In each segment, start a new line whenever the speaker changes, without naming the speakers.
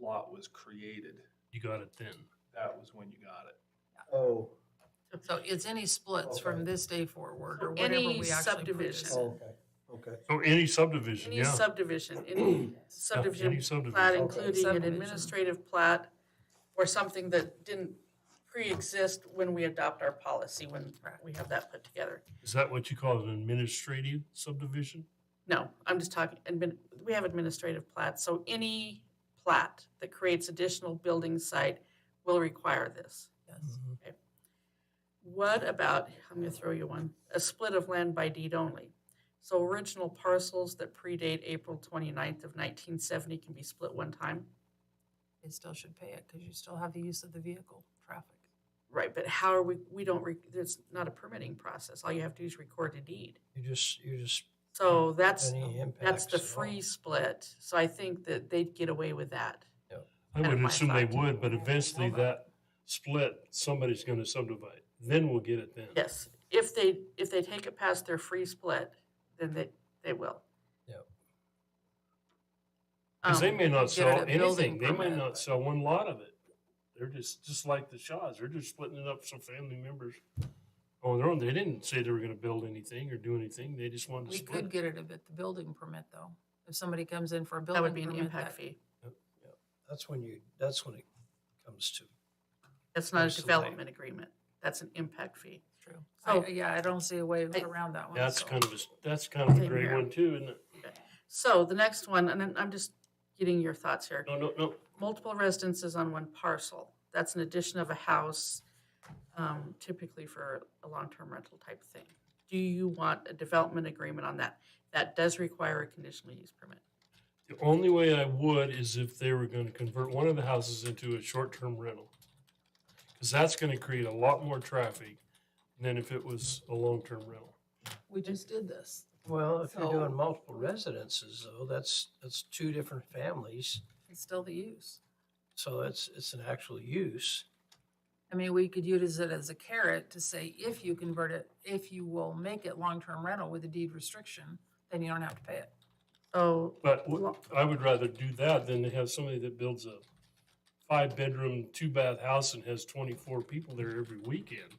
lot was created,
You got it then.
that was when you got it.
Oh,
So it's any splits from
Okay.
this day forward or
So
whatever
any
we actually purchase.
subdivision.
Oh.
okay, oh, okay.
So any subdivision,
Any
yeah.
subdivision, any
Yeah, Any
subdivision
subdivision.
plat,
in-
including an
Subdivision.
administrative plat or something that didn't pre-exist when we adopt our policy, when we have that put together.
Is that what you call an administrative subdivision?
No, I'm just talking, admin, we have administrative plats, so any plat that creates additional building site will require this.
Yes.
Mm-hmm.
What about, I'm gonna throw you one, a split of land by deed only? So original parcels that predate April 29th of nineteen seventy can be split one time?
They still should pay it because you still have the use of the vehicle traffic.
Right, but how are we, we don't, re- there's not a permitting process. All you have to do is record a deed.
You just, you just.
So that's,
any
that's
impacts
the
at all.
free split. So I think that they'd get away with that.
I
Kind of
would
my
assume they
thought.
would, but eventually that split, somebody's gonna subdivide. Then we'll get it then.
Yes, if they, if they take it past their free split, then they, they will.
Yep.
Cause they
Um,
may not
get it
sell
a
anything.
building
They may
permit.
not sell one lot of it. They're just, just like the Shaws. They're just splitting it up so family members on their own. They didn't say they were gonna build anything or do anything. They just wanted to
We
split.
could
it.
get it with the building permit though. If somebody comes in for a building
That
permit.
would be an
that-
impact fee.
That's when you, that's when it comes to,
That's not a
Absolutely.
development agreement. That's an impact fee.
True.
So-
I- Yeah, I don't see a way
I-
around that one.
That's
so.
kind of, a s- that's kind of a
Same
great
here.
one too, isn't it?
So the next one, and then I'm just getting your thoughts here.
No, no, no.
multiple residences on one parcel. That's an addition of a house, um, typically for a long-term rental type thing. Do you want a development agreement on that? That does require a conditional use permit.
The only way I would is if they were gonna convert one of the houses into a short-term rental. Cause that's gonna create a lot more traffic than if it was a long-term rental.
We just did this.
well, if you're
So-
doing multiple residences though, that's, that's two different families.
It's still the use.
So it's, it's an actual use.
I mean, we could use it as a carrot to say, if you convert it, if you will make it long-term rental with a deed restriction, then you don't have to pay it.
So,
But wh- I would rather do that than to have somebody that builds a five-bedroom, two-bath house and has twenty-four people there every weekend.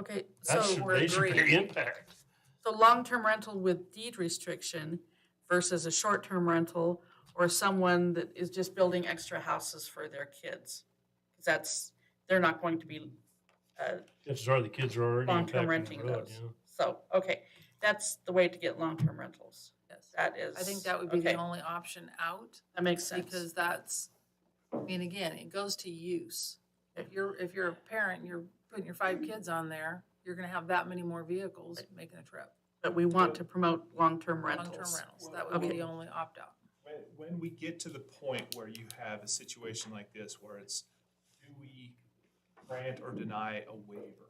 okay,
That
so,
should,
we're
they should pay
agreeing.
impact.
so long-term rental with deed restriction versus a short-term rental or someone that is just building extra houses for their kids. 'Cause That's, they're not going to be, uh,
Chances are the kids are already
long-term
impacting
renting
the road,
those.
you know?
So, okay, that's the way to get long-term rentals.
Yes.
That is.
I think that would be the
okay,
only option out.
That makes sense.
Because that's, I mean, again, it goes to use. If you're, if you're a parent, and you're putting your five kids on there, you're gonna have that many more vehicles making a trip.
But we want to promote long-term
Long-term
rentals.
rentals, that would be
Okay.
the only opt-out.
When, when we get to the point where you have a situation like this where it's, do we grant or deny a waiver?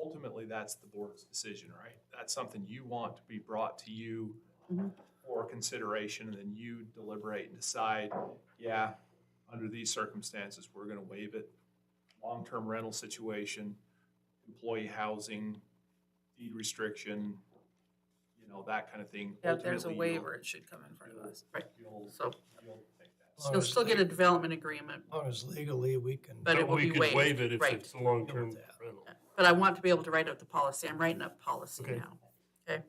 Ultimately, that's the board's decision, right? That's something you want to be brought to you
Mhm.
for consideration, and then you deliberate and decide, yeah, under these circumstances, we're gonna waive it. Long-term rental situation, employee housing, deed restriction, you know, that kind of thing.
Yeah, if there's a
Ultimately, you'll-
waiver, it should come in front of us.
You'll,
So
you'll take that.
Oh,
Well,
you'll still get a development agreement,
As long as legally we can.
But it will
we
be
could
waived,
waive it if
right.
it's a long-term
that.
rental.
but I want to be able to write up the policy. I'm writing up policy
Okay.
now. Okay.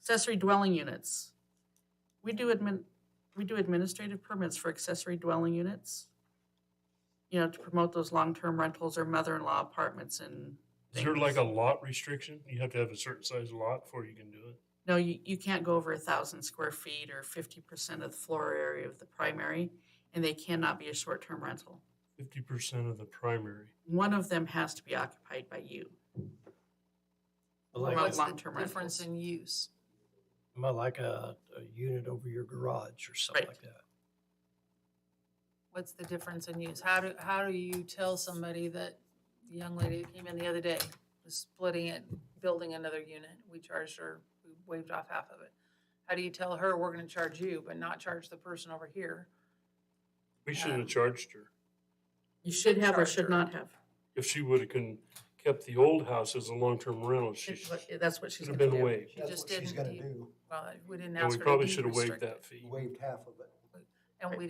Accessory dwelling units. We do admin, we do administrative permits for accessory dwelling units. You know, to promote those long-term rentals or mother-in-law apartments and
Is there
things.
like a lot restriction? You have to have a certain size lot before you can do it?
No, you, you can't go over a thousand square feet or fifty percent of the floor area of the primary, and they cannot be a short-term rental.
Fifty percent of the primary.
One of them has to be occupied by you.
Like,
Promote
What's
a-
long-term
the
rentals.
difference in use?
like a, a unit over your garage or something
Right.
like that.
What's the difference in use? How do, how do you tell somebody that the young lady who came in the other day was splitting it, building another unit? We charged her, we waived off half of it. How do you tell her, we're gonna charge you, but not charge the person over here?
We shouldn't
Um,
have charged her.
You should have or should
Charger.
not have.
If she would have can, kept the old house as a long-term rental, she
It's
sh-
what- That's what she's
should have
gonna
been
do.
waived.
She
That's
just
what she's
didn't
gonna
deed-
do.
Well, we didn't
And
ask
we
her to
probably
deed
should have waived
restrict it,
that fee.
Waived half of it.
And we